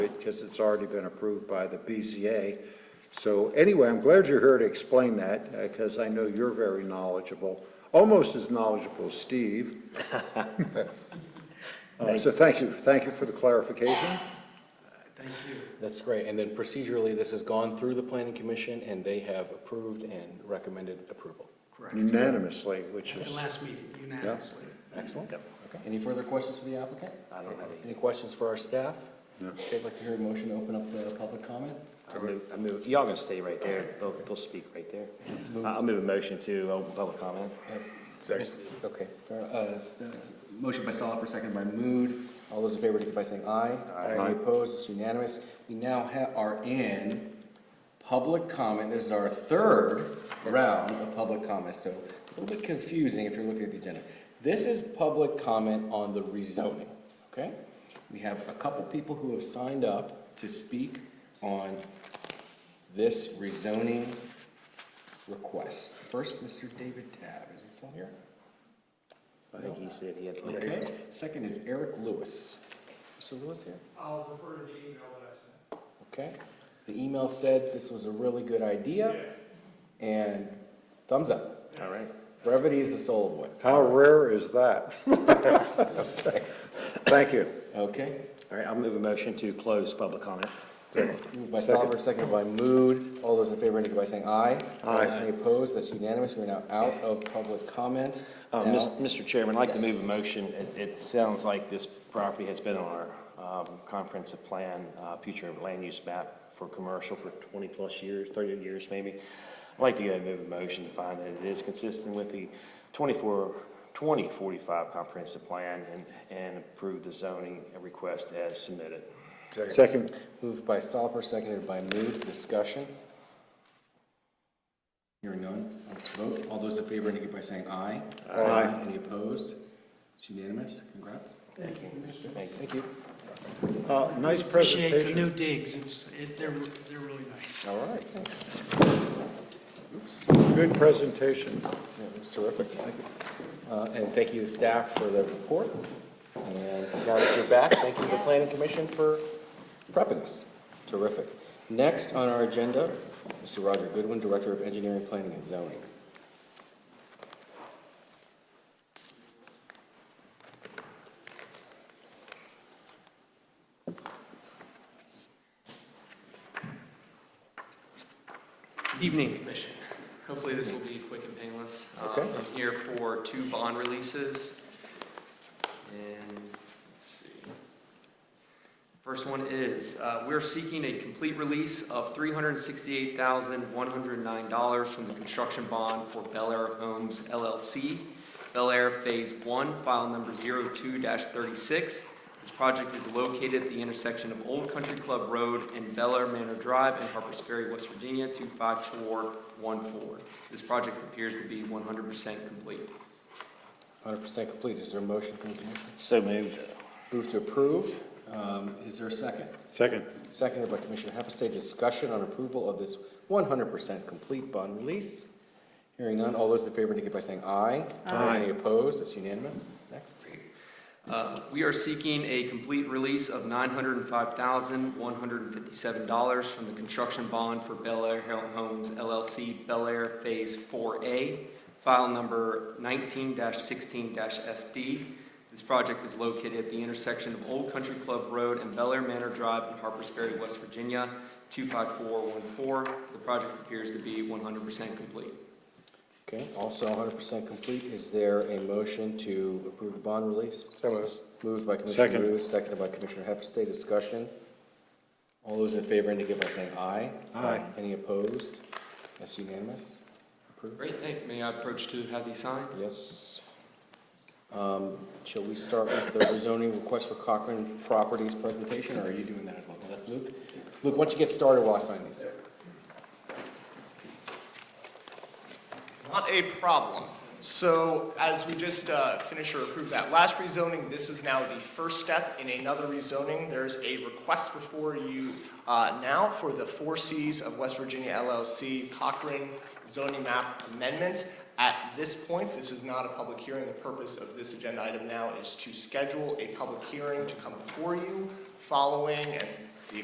because it's already been approved by the BZA. So anyway, I'm glad you're here to explain that, because I know you're very knowledgeable, almost as knowledgeable as Steve. Uh, So thank you, thank you for the clarification. That's great. And then procedurally, this has gone through the planning commission and they have approved and recommended approval. Correct. Unanimously, which At is, last meeting, unanimously. Excellent. Okay. Any further questions for the applicant? I don't have any. Any questions for our staff? No. Okay, I'd like to hear a motion to open up the public comment. I move, I move, y'all gonna stay right there, they'll, they'll speak right there. I'll move a motion to open public comment. Second. Okay. fair- uh, s- uh, Motion by Soliper, second by Mood. All those in favor, indicate by saying aye. Aye. Any opposed? It's unanimous. We now ha are in public comment. This is our third round of public comment, so a little bit confusing if you're looking at the agenda. This is public comment on the rezoning, okay? We have a couple people who have signed up to speak on this rezoning request. First, Mr. David Tab. Is he still here? I think he said he had. Okay, second is Eric Lewis. Mr. Lewis here? I'll refer to the email that I sent. Okay. The email said this was a really good idea, and thumbs up. All right. Brevity is the soul of wit. how rare is that? Thank you. Okay? All right, I'll move a motion to close public comment. Moved by Stopper, seconded by Mood. All those in favor indicate by saying aye. Aye. Any opposed? That's unanimous. We're now out of public comment. Uh, Now- Mis- Mr. Chairman, I'd like to move Yes. a motion, it, it sounds like this property has been on our, um, comprehensive plan, uh, future land use map for commercial for twenty-plus years, thirty years maybe. I'd like to go ahead and move a motion to find that it is consistent with the 24 2045 comprehensive plan and, and approve the zoning request as submitted. Second, Moved by Stopper, seconded by Mood. Discussion? Hearing none, let's vote. All those in favor indicate by saying aye. Aye. Any opposed? It's unanimous. Congrats. Thank you, Mr. Thank you. uh, nice Appreciate the presentation. new digs, it's, it, they're, they're really nice. All right, thanks. Oops, Good presentation. that was terrific. Thank you. Uh, And thank you, staff, for the report. And now that you're back, thank you to the planning commission for prepping us. Terrific. Next on our agenda, Mr. Roger Goodwin, Director of Engineering, Planning and Zoning. Evening, Commission. Hopefully, this will be quick and painless. Um, Okay. I'm here for two bond releases. And, let's see. First one is, uh, we're seeking a complete release of $368,109 from the construction bond for Bel Air Homes LLC, Bel Air Phase 1, file number 02-36. This project is located at the intersection of Old Country Club Road and Bel Air Manor Drive in Harpers Ferry, West Virginia, 25414. This project appears to be 100% complete. 100% complete. Is there a motion from the commission? So moved. Move to approve. Um, Is there a second? Second. Seconded by Commissioner Hapestay. Discussion on approval of this 100% complete bond release. Hearing none. All those in favor indicate by saying aye. Aye. Any opposed? It's unanimous. Next. Uh, We are seeking a complete release of $905,157 from the construction bond for Bel Air Homes LLC, Bel Air Phase 4A, file number 19-16-SD. This project is located at the intersection of Old Country Club Road and Bel Air Manor Drive in Harpers Ferry, West Virginia, 25414. The project appears to be 100% complete. Okay, also 100% complete. Is there a motion to approve the bond release? Moved by Commissioner Second. Rue, seconded by Commissioner Hapestay. Discussion. All those in favor indicate by saying aye. Aye. Any opposed? That's unanimous. Approved. Great, thank you. May I approach to have these signed? Yes. Um, Shall we start with the rezoning request for Cochran Properties presentation, or are you doing that as well? That's Luke. Luke, why don't you get started while I sign these? Not a problem. So as we just uh, finished or approved that last rezoning, this is now the first step in another rezoning. There's a request before you uh, now for the Four Cs of West Virginia LLC Cochrane zoning map amendment. At this point, this is not a public hearing. The purpose of this agenda item now is to schedule a public hearing to come before you following and